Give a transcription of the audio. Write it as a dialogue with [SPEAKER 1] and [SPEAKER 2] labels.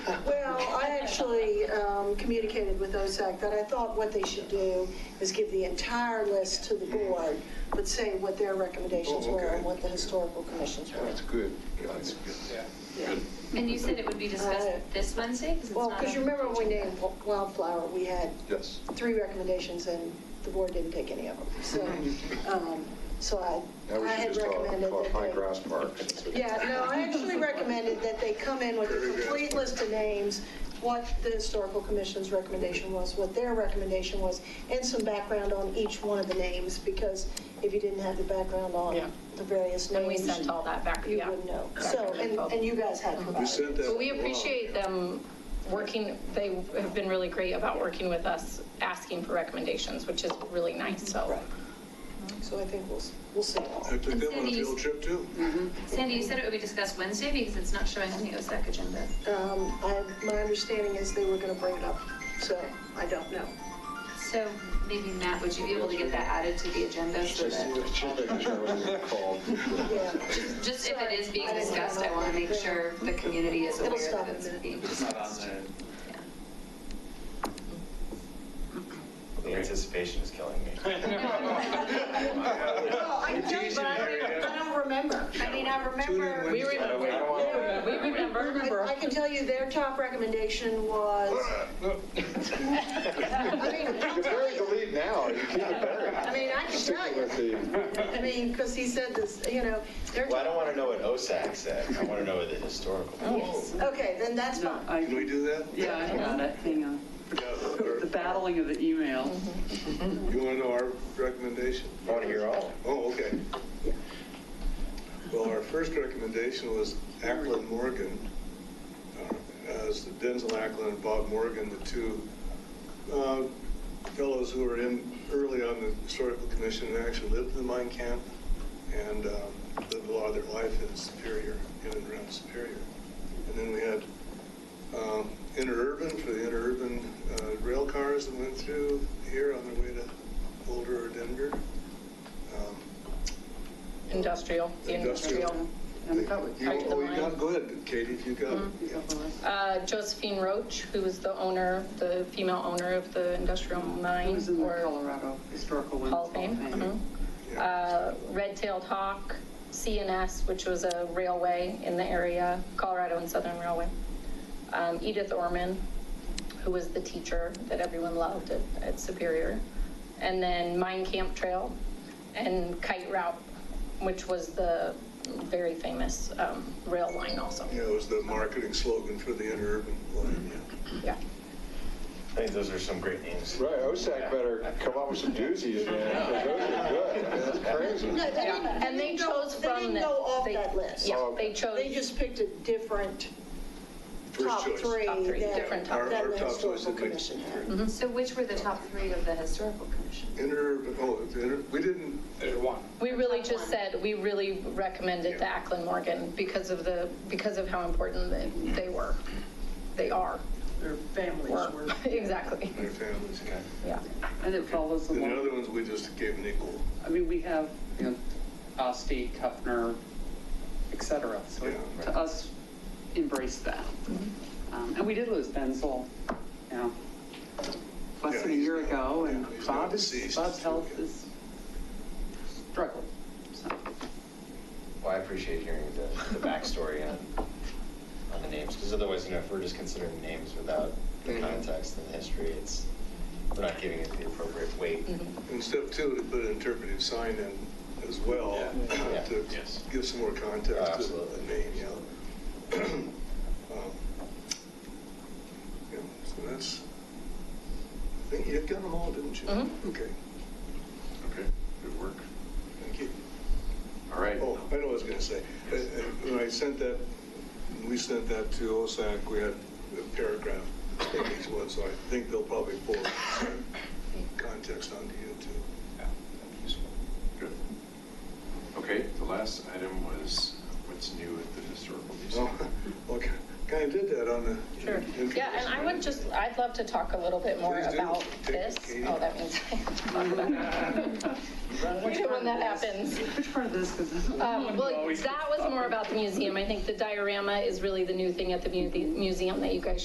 [SPEAKER 1] Well, I actually um, communicated with OSAC that I thought what they should do is give the entire list to the board, but say what their recommendations
[SPEAKER 2] Oh,
[SPEAKER 1] were
[SPEAKER 2] okay.
[SPEAKER 1] and what the historical commissions were.
[SPEAKER 2] That's good. That's good.
[SPEAKER 3] Yeah.
[SPEAKER 1] Yeah.
[SPEAKER 4] And you said it would be discussed
[SPEAKER 1] Uh,
[SPEAKER 4] this Wednesday? 'Cause it's
[SPEAKER 1] Well,
[SPEAKER 4] not
[SPEAKER 1] because
[SPEAKER 4] on-
[SPEAKER 1] you remember when we named Wildflower, we had
[SPEAKER 2] Yes.
[SPEAKER 1] three recommendations and the board didn't take any of them. So,
[SPEAKER 2] Mm-hmm.
[SPEAKER 1] um, so I,
[SPEAKER 2] Now we
[SPEAKER 1] I
[SPEAKER 2] should
[SPEAKER 1] had
[SPEAKER 2] just
[SPEAKER 1] recommended
[SPEAKER 2] call,
[SPEAKER 1] that
[SPEAKER 2] call it Pine
[SPEAKER 1] they-
[SPEAKER 2] Grass Park.
[SPEAKER 1] Yeah, no, I actually recommended that they come in with a
[SPEAKER 2] Very good.
[SPEAKER 1] complete list of names, what the historical commission's recommendation was, what their recommendation was, and some background on each one of the names, because if you didn't have the background
[SPEAKER 5] Yeah.
[SPEAKER 1] on the various
[SPEAKER 5] And we
[SPEAKER 1] names,
[SPEAKER 5] sent all that back,
[SPEAKER 1] you
[SPEAKER 5] yeah.
[SPEAKER 1] wouldn't know.
[SPEAKER 5] Back
[SPEAKER 1] So,
[SPEAKER 5] and
[SPEAKER 1] and,
[SPEAKER 5] info.
[SPEAKER 1] and you guys had provided.
[SPEAKER 2] sent
[SPEAKER 1] it.
[SPEAKER 2] that-
[SPEAKER 5] But we appreciate them working, they have been really great about working with us, asking for recommendations, which is really nice, so.
[SPEAKER 1] Right. So I think we'll, s- we'll see.
[SPEAKER 6] I took them on a
[SPEAKER 4] Cindy, you-
[SPEAKER 6] field trip too.
[SPEAKER 4] Sandy, you said it would be discussed Wednesday because it's not showing on the OSAC agenda.
[SPEAKER 1] Um, I, my understanding is they were gonna bring it up, so I don't know.
[SPEAKER 4] So maybe Matt, would you be able to get that added to the agenda so that,
[SPEAKER 2] Just making sure I wasn't called.
[SPEAKER 1] Yeah,
[SPEAKER 4] just if it is being
[SPEAKER 1] Sorry.
[SPEAKER 4] discussed, I want to make sure the community is
[SPEAKER 1] It'll
[SPEAKER 4] aware
[SPEAKER 1] stop
[SPEAKER 4] that
[SPEAKER 1] in a
[SPEAKER 4] it's
[SPEAKER 1] minute.
[SPEAKER 4] being
[SPEAKER 3] It's not on
[SPEAKER 4] discussed.
[SPEAKER 3] the,
[SPEAKER 4] Yeah.
[SPEAKER 7] The anticipation is killing me.
[SPEAKER 1] Well, I don't, but I don't, I don't remember. I mean, I remember.
[SPEAKER 5] We remember, we remember.
[SPEAKER 1] I I can tell you their top recommendation was, I mean, I
[SPEAKER 2] You're
[SPEAKER 1] can tell
[SPEAKER 2] burying the
[SPEAKER 1] you-
[SPEAKER 2] lead now. You keep it buried.
[SPEAKER 1] I mean, I can tell
[SPEAKER 2] Sticking with
[SPEAKER 1] you.
[SPEAKER 2] the,
[SPEAKER 1] I mean, because he said this, you know, their
[SPEAKER 7] Well, I don't
[SPEAKER 1] top.
[SPEAKER 7] want to know what OSAC said. I want to know what the historical.
[SPEAKER 8] Yes.
[SPEAKER 1] Okay, then that's
[SPEAKER 8] No,
[SPEAKER 1] fine.
[SPEAKER 6] Can we
[SPEAKER 8] I,
[SPEAKER 6] do that?
[SPEAKER 8] yeah, I got it, hang on. The battling of the email.
[SPEAKER 6] You want to know our recommendation?
[SPEAKER 7] I want to hear all.
[SPEAKER 6] Oh, okay. Well, our first recommendation was Ackland Morgan, uh, as Denzel Ackland and Bob Morgan, the two uh, fellows who were in early on the historical commission and actually lived in the mine camp and um, lived a lot of their life in Superior, in and around Superior. And then we had um, interurban for the interurban uh, rail cars that went through here on their way to Boulder or Denver. Um,
[SPEAKER 5] Industrial, the industrial.
[SPEAKER 6] you-
[SPEAKER 8] covered.
[SPEAKER 6] you-
[SPEAKER 5] Right to the
[SPEAKER 6] Oh, you
[SPEAKER 5] line.
[SPEAKER 6] got, go ahead, Katie, if you got it.
[SPEAKER 8] Mm-hmm.
[SPEAKER 5] Uh, Josephine Roach, who was the owner, the female owner of the industrial
[SPEAKER 8] It
[SPEAKER 5] mine
[SPEAKER 8] was in the
[SPEAKER 5] or
[SPEAKER 8] Colorado Historical Women's
[SPEAKER 5] Hall of Fame. mhm.
[SPEAKER 8] Mm-hmm.
[SPEAKER 6] Yeah.
[SPEAKER 5] Uh, Red-tailed hawk, CNS, which was a railway in the area, Colorado and Southern Railway. Um, Edith Orman, who was the teacher that everyone loved at, at Superior. And then Mine Camp Trail and Kite Route, which was the very famous um, rail line also.
[SPEAKER 6] Yeah, it was the marketing slogan for the interurban line, yeah.
[SPEAKER 5] Yeah.
[SPEAKER 7] I think those are some great names.
[SPEAKER 2] right, OSAC better come up with some doozies, man. 'cause Those are good. That's crazy.
[SPEAKER 1] No, they didn't-
[SPEAKER 5] And they
[SPEAKER 1] didn't go-
[SPEAKER 5] chose from
[SPEAKER 1] They didn't
[SPEAKER 5] the-
[SPEAKER 1] go off
[SPEAKER 5] they-
[SPEAKER 1] that list.
[SPEAKER 5] Yeah,
[SPEAKER 2] Oh,
[SPEAKER 5] they chose.
[SPEAKER 1] They just picked a different
[SPEAKER 6] First
[SPEAKER 1] top
[SPEAKER 6] choice.
[SPEAKER 1] three
[SPEAKER 5] Top three,
[SPEAKER 1] than
[SPEAKER 5] different top
[SPEAKER 6] Our-
[SPEAKER 1] than
[SPEAKER 6] our
[SPEAKER 1] the
[SPEAKER 6] top choice
[SPEAKER 1] historical
[SPEAKER 6] would be-
[SPEAKER 1] commission had.
[SPEAKER 4] So which were the top three of the historical commission?
[SPEAKER 6] Interurban, oh, the inter- we didn't,
[SPEAKER 3] there's one.
[SPEAKER 5] We really just said, we really recommended the Ackland Morgan because of the, because of how important they- they were. They are,
[SPEAKER 8] Their families
[SPEAKER 5] were,
[SPEAKER 8] were,
[SPEAKER 5] exactly,
[SPEAKER 6] their families, yeah.
[SPEAKER 5] yeah.
[SPEAKER 8] and it follows
[SPEAKER 6] And the
[SPEAKER 8] along.
[SPEAKER 6] other ones, we just gave an equal,
[SPEAKER 9] I mean, we have, you know, Osti, Kufner, et cetera. So
[SPEAKER 6] Yeah.
[SPEAKER 9] to us, embrace that.
[SPEAKER 5] Mm-hmm.
[SPEAKER 9] Um, And we did lose Benzel, you know,
[SPEAKER 6] Yeah,
[SPEAKER 8] less than a
[SPEAKER 6] he's
[SPEAKER 8] year
[SPEAKER 6] now-
[SPEAKER 8] ago, and
[SPEAKER 6] yeah, he's now
[SPEAKER 8] Bob is,
[SPEAKER 6] deceased.
[SPEAKER 8] Bob's health is struggling, so.
[SPEAKER 7] Well, I appreciate hearing the, the backstory on, on the names, because otherwise, you know, if we're just considering names without the context and the history, it's, we're not giving it the appropriate weight.
[SPEAKER 6] And step two, to put an interpretive sign in as well,
[SPEAKER 7] Yeah.
[SPEAKER 6] to
[SPEAKER 3] Yes.
[SPEAKER 6] give some more
[SPEAKER 7] Oh,
[SPEAKER 6] context to the
[SPEAKER 7] absolutely.
[SPEAKER 6] name, yeah. Um, yeah, So that's, I think you got them all, didn't you?
[SPEAKER 5] Mhm.
[SPEAKER 7] Mm-hmm.
[SPEAKER 6] Okay,
[SPEAKER 10] Okay, good work.
[SPEAKER 6] thank you.
[SPEAKER 10] All right.
[SPEAKER 6] Oh, I know what I was going to say. Uh, uh, When I sent that, we sent that to OSAC, we had a paragraph in each one, so I think they'll probably pull some context onto you too.
[SPEAKER 3] Yeah.
[SPEAKER 10] Good. Okay, the last item was what's new at the historical museum.
[SPEAKER 2] Oh.
[SPEAKER 6] Well, kind of Oh, did that on the.
[SPEAKER 5] Sure. Yeah, and I would just, I'd love to talk a little bit more
[SPEAKER 6] Please do.
[SPEAKER 5] about
[SPEAKER 6] Take
[SPEAKER 5] this.
[SPEAKER 6] Katie.
[SPEAKER 5] Oh, that means I have to talk about it. You know when that happens.
[SPEAKER 8] Which part of this, because
[SPEAKER 6] Mm-hmm.
[SPEAKER 5] Um, Well, that was more about the museum. I think the diorama is really the new thing at the mu- museum that you guys